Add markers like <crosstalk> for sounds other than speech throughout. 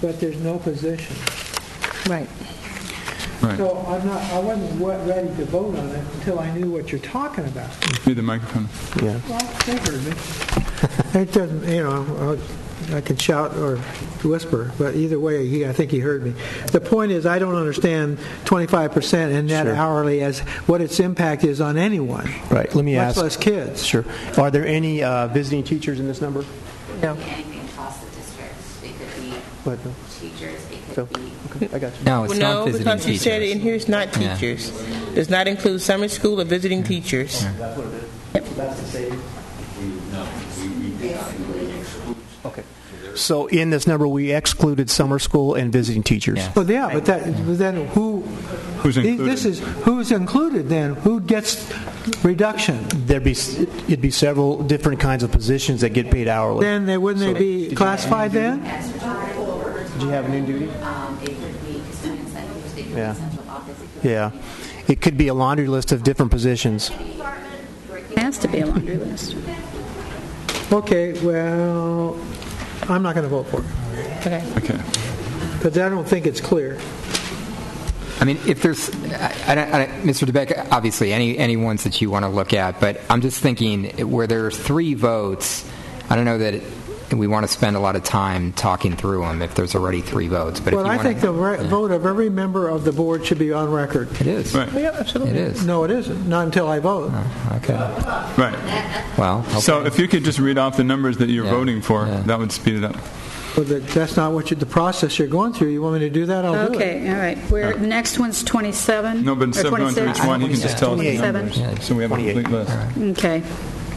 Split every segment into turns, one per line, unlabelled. but there's no position.
Right.
So
Right.
I'm not, I wasn't wa- ready to vote on it until I knew what you're talking about.
Need the microphone.
Yeah.
Well, they heard me.
<laughs> It doesn't, you know, I I can shout or whisper, but either way, he, I think he heard me. The point is, I don't understand 25% and that
Sure.
hourly as what its impact is on anyone.
Right, let me
Much
ask.
less kids.
Sure. Are there any uh, visiting teachers in this number?
Yeah.
Anything across the district. It could be
What, no?
teachers, it
Phil?
could be
Okay, I got you.
No, it's
Well,
not
no,
visiting
because you said it in
teachers.
here it's not
Yeah.
teachers. Does not include summer school or visiting teachers.
So in this number, we excluded summer school and visiting teachers.
Yeah.
Well, yeah, but that, but then who,
Who's
this
included?
is, who's included then? Who gets reduction?
There'd be, s- it'd be several different kinds of positions that get paid hourly.
Then, they wouldn't they be classified then?
Did you have an in-duty?
Um, it could be custodian centers, it could
Yeah.
be central office. it could
Yeah. It could be a laundry list of different positions.
Has to be a laundry list.
Okay, well, I'm not going to vote for it,
Okay.
Okay.
because I don't think it's clear.
I mean, if there's, I, I don't, I don't, Mr. DeBeck, obviously, any, any ones that you want to look at, but I'm just thinking where there are three votes, I don't know that we want to spend a lot of time talking through them if there's already three votes. But if
Well,
you
I
wanna-
think the re- vote of every member of the board should be on record. Oh,
It is.
Right.
Yeah, absolutely.
It is.
No, it isn't, not until I vote.
Okay.
Right.
Well,
So
okay.
if you could just read off the numbers that you're
Yeah,
voting for,
yeah.
that would speed it up.
Well, that- That's not what you, the process you're going through. You want me to do that? I'll do it.
Okay, all right. We're, the next one's 27?
No, but instead
or
of going through each
26?
one, you can just tell us the
27.
numbers. So we have a
28.
complete list.
Okay.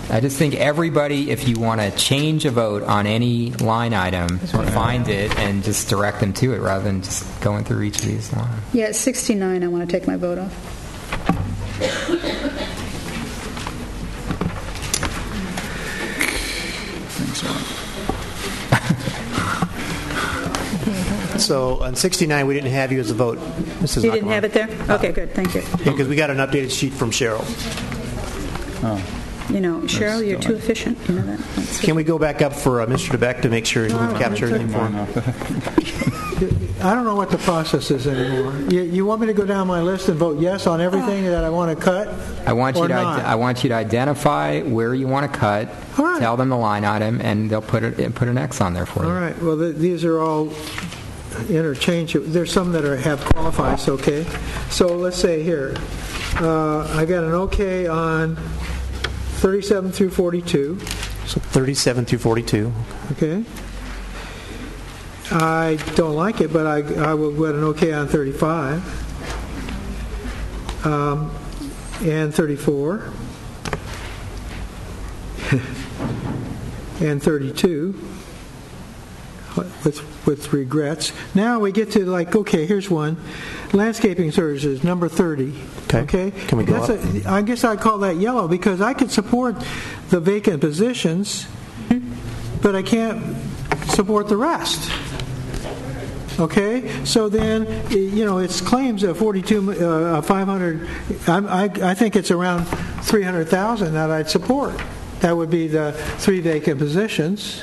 I just think everybody, if you want to change a vote on any line item, find it and just direct them to it rather than just going through each of these lines.
Yeah, at 69, I want to take my vote off.
Thanks a lot.
So on 69, we didn't have you as a vote, Mrs.
You didn't have it there? Okay, good, thank you.
Because we got an updated sheet from Cheryl.
You know, Cheryl, you're too efficient, you know that. That's-
Can we go back up for uh, Mr. DeBeck to make sure we've
Oh,
captured everything for him?
I don't know what the process is anymore. You, you want me to go down my list and vote yes on everything that I want to cut?
I want you
or
to
not?
ide- I want you to identify where you want to cut.
All right.
Tell them the line item, and they'll put it put an X on there for you.
All right, well, th- these are all interchangeable. There's some that are, have qualifies, okay? So let's say here, uh, I got an okay on 37 through 42.
So 37 through 42.
Okay. I don't like it, but I, I will get an okay on 35. Um, And 34. <laughs> And 32. With, with regrets. Now we get to like, okay, here's one. Landscaping services, number 30.
Okay. Can we go
That's
up?
a- I guess I call that yellow because I could support the vacant positions
Hmm?
but I can't support the rest. Okay, so then, eh, you know, it's claims of 42, uh, 500, I'm- I, I think it's around 300,000 that I'd support. That would be the three vacant positions.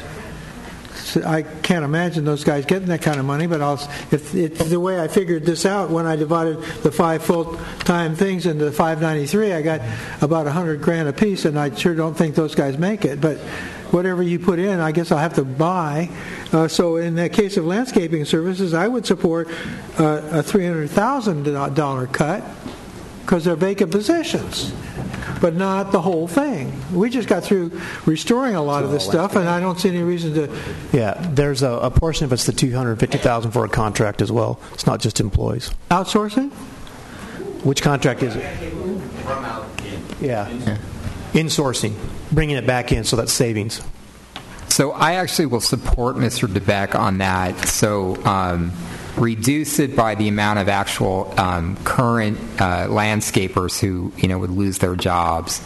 So I can't imagine those guys getting that kind of money, but I'll, if, it, the way I figured this out, when I divided the five full-time things into 593, I got about 100 grand apiece, and I sure don't think those guys make it, but whatever you put in, I guess I'll have to buy. Uh, so in the case of landscaping services, I would support uh, a $300,000 cut, because they're vacant positions, but not the whole thing. We just got through restoring a lot of this stuff, and I don't see any reason to
Yeah, there's a, a portion of it's the 250,000 for a contract as well. It's not just employees.
Outsourcing?
Which contract is it? Yeah. Insourcing, bringing it back in, so that's savings.
So I actually will support Mr. DeBeck on that. So um, reduce it by the amount of actual um, current uh, landscapers who you know would lose their jobs.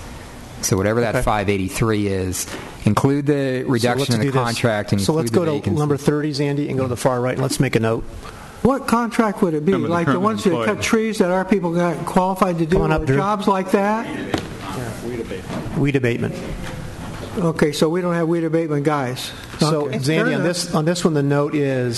So whatever that 583 is, include the
So
reduction
let's
in the
do this.
contract. And
So let's
include the
go to
vacancy.
number 30s, Andy, and go to the far right, and let's make a note.
What contract would it be?
No, but the
Like the
current
ones that
employee.
cut trees that our people got qualified to do,
Come on up,
or
Drew.
jobs like that?
Weed abatement.
Okay, so we don't have weed abatement guys.
So,
Okay. Fair
Zandy, on
enough.
this, on this one, the note is